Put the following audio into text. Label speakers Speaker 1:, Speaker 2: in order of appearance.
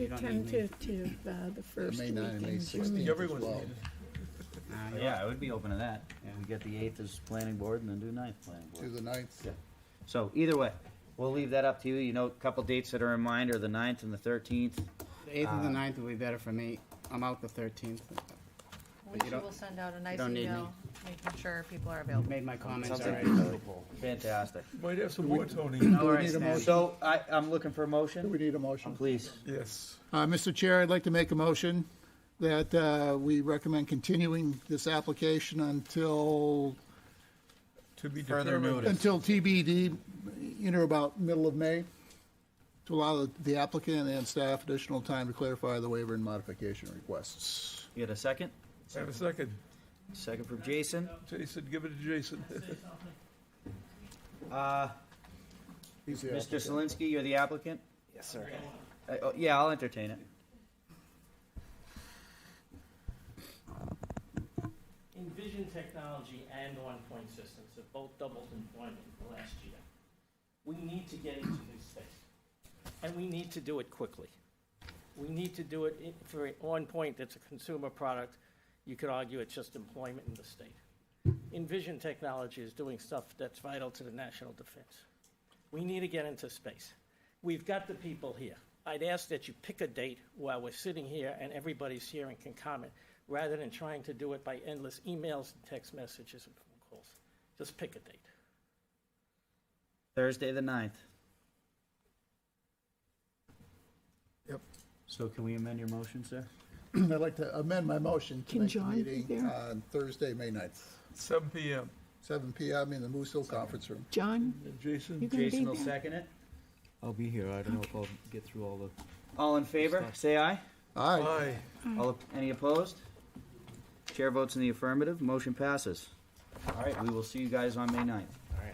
Speaker 1: Tentative to uh, the first
Speaker 2: May
Speaker 1: weekend.
Speaker 2: 9 and May
Speaker 1: in
Speaker 2: 16
Speaker 1: June.
Speaker 2: as well.
Speaker 3: Uh, Yeah, I would be open to that. And we get the eighth as planning board and then do ninth planning
Speaker 2: Do
Speaker 3: board.
Speaker 2: the ninth.
Speaker 3: Yeah. So either way, we'll leave that up to you. You know, a couple dates that are in mind are the ninth and the thirteenth.
Speaker 4: The eighth and the
Speaker 3: Uh,
Speaker 4: ninth will be better for me. I'm out the thirteenth. But you
Speaker 5: Alicia
Speaker 4: don't-
Speaker 5: will send out a nice
Speaker 4: don't need
Speaker 5: email, making sure people are available.
Speaker 4: Made my comments
Speaker 3: Something
Speaker 4: already.
Speaker 3: doable. Fantastic.
Speaker 6: Might have some more, Tony.
Speaker 4: All right,
Speaker 2: need a
Speaker 4: Stan.
Speaker 3: So I, I'm looking for a
Speaker 2: Do we
Speaker 3: motion,
Speaker 2: need a motion?
Speaker 3: please.
Speaker 6: Yes.
Speaker 2: Uh, Mr. Chair, I'd like to make a motion that uh, we recommend continuing this application until,
Speaker 6: To be
Speaker 7: Further
Speaker 6: determined.
Speaker 7: notice.
Speaker 2: until TBD, you know, about middle of May, to allow the applicant and staff additional time to clarify the waiver and modification requests.
Speaker 3: You got a second?
Speaker 6: Have a second.
Speaker 3: Second from Jason.
Speaker 6: Jason, give it to Jason.
Speaker 3: Uh,
Speaker 2: He's the
Speaker 3: Mr.
Speaker 2: applicant.
Speaker 3: Zelinski, you're the applicant?
Speaker 4: Yes, sir.
Speaker 3: Uh, oh, yeah, I'll entertain it.
Speaker 8: Envision Technology and On Point Systems have both doubled employment in the last year. We need to get into this space, and we need to do it quickly. We need to do it i- for On Point, that's a consumer product. You could argue it's just employment in the state. Envision Technology is doing stuff that's vital to the national defense. We need to get into space. We've got the people here. I'd ask that you pick a date while we're sitting here and everybody's here and can comment, rather than trying to do it by endless emails, and text messages, and phone calls. Just pick a date.
Speaker 3: Thursday, the ninth.
Speaker 2: Yep.
Speaker 3: So can we amend your motion, sir?
Speaker 2: I'd like to amend my motion to
Speaker 1: Can
Speaker 2: make the
Speaker 1: John be
Speaker 2: meeting
Speaker 1: there?
Speaker 2: on Thursday, May 9th,
Speaker 6: Seven PM.
Speaker 2: 7 PM in the Moose Hill Conference Room.
Speaker 1: John,
Speaker 6: And Jason?
Speaker 1: you can be
Speaker 3: Jason will
Speaker 1: there.
Speaker 3: second it.
Speaker 7: I'll be here. I don't know if I'll get through all the
Speaker 3: All in favor, say aye.
Speaker 2: Aye.
Speaker 6: Aye.
Speaker 3: All, op- any opposed? Chair votes in the affirmative, motion passes. All right, we will see you guys on May ninth.